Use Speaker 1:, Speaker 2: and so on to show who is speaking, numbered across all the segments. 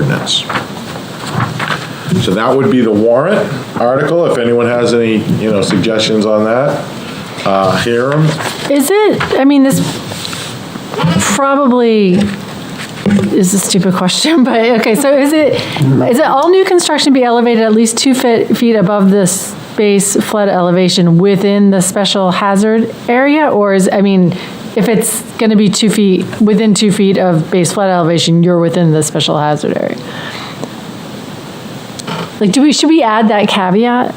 Speaker 1: ordinance. So that would be the warrant article, if anyone has any, you know, suggestions on that, uh, hear 'em.
Speaker 2: Is it, I mean, this probably is a stupid question, but, okay, so is it, is it all new construction be elevated at least two feet, feet above the base flood elevation within the special hazard area? Or is, I mean, if it's gonna be two feet, within two feet of base flood elevation, you're within the special hazard area? Like, do we, should we add that caveat?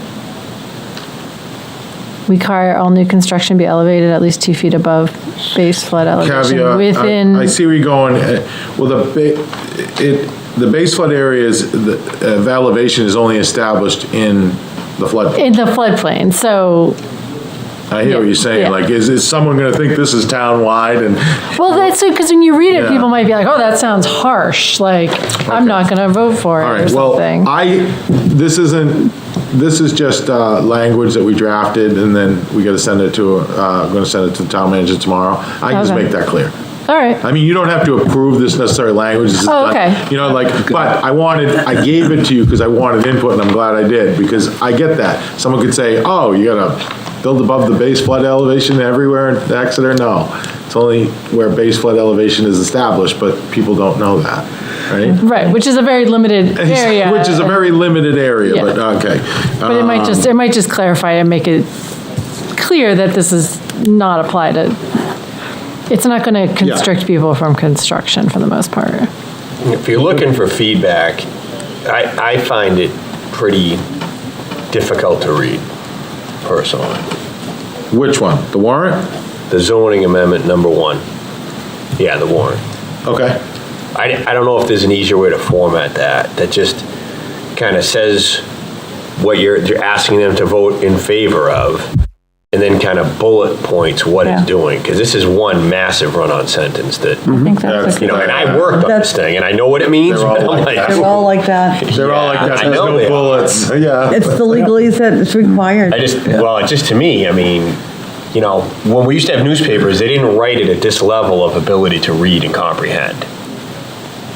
Speaker 2: We require all new construction be elevated at least two feet above base flood elevation
Speaker 1: caveat.
Speaker 2: within.
Speaker 1: I- I see where you're going, Uh, well, the, ba- it, the base flood area is, the uh, elevation is only established in the flood.
Speaker 2: In the floodplain, so,
Speaker 1: I hear what you're saying,
Speaker 2: Yeah.
Speaker 1: like, is, is someone gonna think this is town-wide and,
Speaker 2: well, that's, because when you read it,
Speaker 1: Yeah.
Speaker 2: people might be like, oh, that sounds harsh, like, I'm not gonna vote for
Speaker 1: all
Speaker 2: it or
Speaker 1: right, well,
Speaker 2: something.
Speaker 1: I, this isn't, this is just, uh, language that we drafted, and then we gotta send it to, uh, I'm gonna send it to the town manager tomorrow. I can just
Speaker 2: Okay.
Speaker 1: make that clear.
Speaker 2: All right,
Speaker 1: I mean, you don't have to approve this necessary language. this is
Speaker 2: Oh,
Speaker 1: done-
Speaker 2: okay.
Speaker 1: You know, like, but I wanted, I gave it to you because I wanted input, and I'm glad I did, because I get that. Someone could say, oh, you gotta build above the base flood elevation everywhere in Exeter? No. It's only where base flood elevation is established, but people don't know that, right?
Speaker 2: right, which is a very limited area.
Speaker 1: Which is a very limited area, but,
Speaker 2: Yeah.
Speaker 1: okay. Uh,
Speaker 2: But it might just, it might just clarify and make it clear that this is not applied to, it's not gonna constrict people from construction for the most part.
Speaker 3: If you're looking for feedback, I, I find it pretty difficult to read, personally.
Speaker 1: Which one? The warrant?
Speaker 3: The zoning amendment number one. Yeah, the warrant.
Speaker 1: Okay.
Speaker 3: I, I don't know if there's an easier way to format that, that just kind of says what you're, you're asking them to vote in favor of, and then kind of bullet points what it's
Speaker 4: Yeah.
Speaker 3: doing, because this is one massive run-on sentence that,
Speaker 4: I think that's,
Speaker 1: That's-
Speaker 3: you
Speaker 4: a good-
Speaker 3: know, and I worked on this thing, and I know what it means.
Speaker 1: Mm-hmm. They're all
Speaker 3: but I'm
Speaker 1: like that.
Speaker 4: they're all like that.
Speaker 1: They're all like
Speaker 3: Yeah,
Speaker 1: that,
Speaker 3: I
Speaker 1: there's
Speaker 3: know they
Speaker 1: no
Speaker 3: are.
Speaker 1: bullets, yeah.
Speaker 4: It's the legalese that's required.
Speaker 3: I just, well, it's just to me, I mean, you know, when we used to have newspapers, they didn't write it at this level of ability to read and comprehend.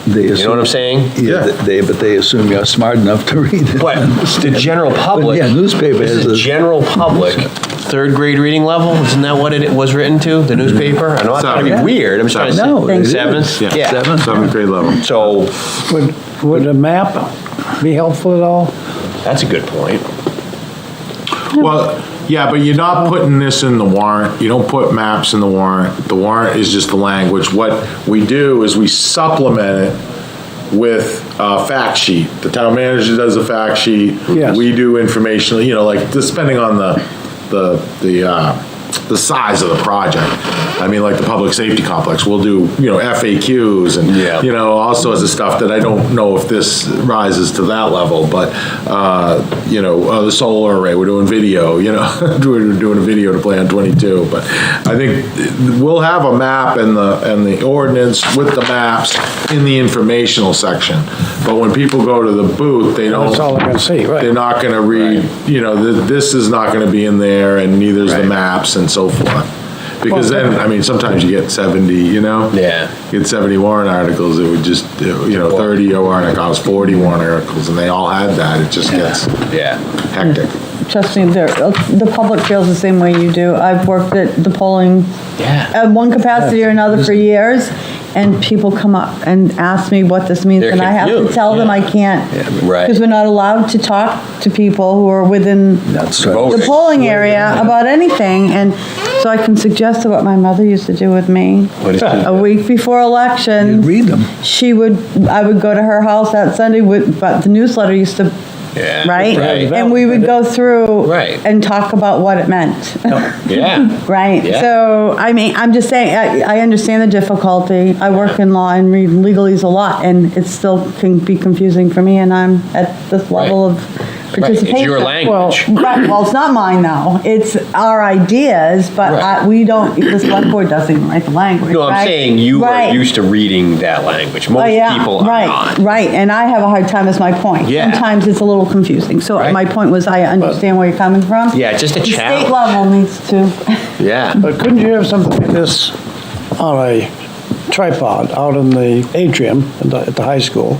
Speaker 3: You know what I'm saying?
Speaker 1: Yeah.
Speaker 5: Yeah, th- they, but they assume you're smart enough to read it.
Speaker 3: But the general public.
Speaker 5: But, yeah, newspaper
Speaker 3: This
Speaker 5: is
Speaker 3: The
Speaker 5: a-
Speaker 3: general public, third grade reading level, isn't that what it was written to, the newspaper? I know I'm trying to be
Speaker 1: Seven.
Speaker 3: weird, I'm just trying to say.
Speaker 5: Mm-hmm. No, it is.
Speaker 3: Seventh?
Speaker 1: Yeah.
Speaker 3: Yeah,
Speaker 5: Seven.
Speaker 1: Seventh grade level.
Speaker 3: so,
Speaker 6: Would, would a map be helpful at all?
Speaker 3: that's a good point.
Speaker 1: Well, yeah, but you're not putting this in the warrant, you don't put maps in the warrant, the warrant is just the language. What we do is we supplement it with a fact sheet. The town manager does a fact sheet.
Speaker 6: Yes.
Speaker 1: We do informational, you know, like, just depending on the, the, the, uh, the size of the project. I mean, like the public safety complex, we'll do, you know, FAQs and,
Speaker 3: Yeah.
Speaker 1: you know, all sorts of stuff that I don't know if this rises to that level, but, uh, you know, uh, the solar array, we're doing video, you know, we're doing a video to play on 22, but I think we'll have a map and the, and the ordinance with the maps in the informational section, but when people go to the booth, they don't.
Speaker 6: That's all they're gonna see, right.
Speaker 1: They're not gonna read, you know, th- this is not gonna be in there, and neither is the
Speaker 3: Right.
Speaker 1: maps and so forth. Because then, I mean, sometimes you get 70, you know?
Speaker 3: Yeah.
Speaker 1: You get 70 warrant articles, it would just, you know, 30 warrant articles, 40 warrant articles, and they all had that, it just gets
Speaker 3: Yeah.
Speaker 1: hectic.
Speaker 4: Trust me, they're- uh, the public feels the same way you do. I've worked at the polling at one capacity or another for years, and people come up and ask me what this means,
Speaker 3: They're
Speaker 4: and I have to
Speaker 3: confused,
Speaker 4: tell them
Speaker 3: yeah.
Speaker 4: I can't.
Speaker 3: Right.
Speaker 4: Because we're not allowed to talk to people who are within
Speaker 5: That's right.
Speaker 3: Vote.
Speaker 4: the polling area about anything, and so I can suggest what my mother used to do with me.
Speaker 3: What is it?
Speaker 4: A week before election.
Speaker 5: You read them.
Speaker 4: She would, I would go to her house that Sunday with, but the newsletter used to,
Speaker 3: Yeah,
Speaker 4: right?
Speaker 3: right.
Speaker 4: And we would go through.
Speaker 3: Right.
Speaker 4: And talk about what it meant,
Speaker 3: Yeah.
Speaker 4: right?
Speaker 3: Yeah.
Speaker 4: So, I mean, I'm just saying, I, I understand the difficulty. I work in law and read legalese a lot, and it still can be confusing for me, and I'm at this level of
Speaker 3: Right, it's
Speaker 4: participation.
Speaker 3: your language.
Speaker 4: Right, well, it's not mine though. It's our ideas, but
Speaker 3: Right.
Speaker 4: I, we don't, the select board doesn't write the language,
Speaker 3: No, I'm
Speaker 4: right?
Speaker 3: saying you are
Speaker 4: Right.
Speaker 3: used to reading that language.
Speaker 4: Oh,
Speaker 3: Most
Speaker 4: yeah,
Speaker 3: people are
Speaker 4: right,
Speaker 3: not.
Speaker 4: right, and I have a hard time, is my point.
Speaker 3: Yeah.
Speaker 4: Sometimes it's a little confusing, so
Speaker 3: Right.
Speaker 4: my point was, I understand where you're coming from.
Speaker 3: Yeah, just a
Speaker 4: The
Speaker 3: challenge.
Speaker 4: state level needs to,
Speaker 3: Yeah.
Speaker 6: But couldn't you have something like this on a tripod out in the atrium at the, at the high school?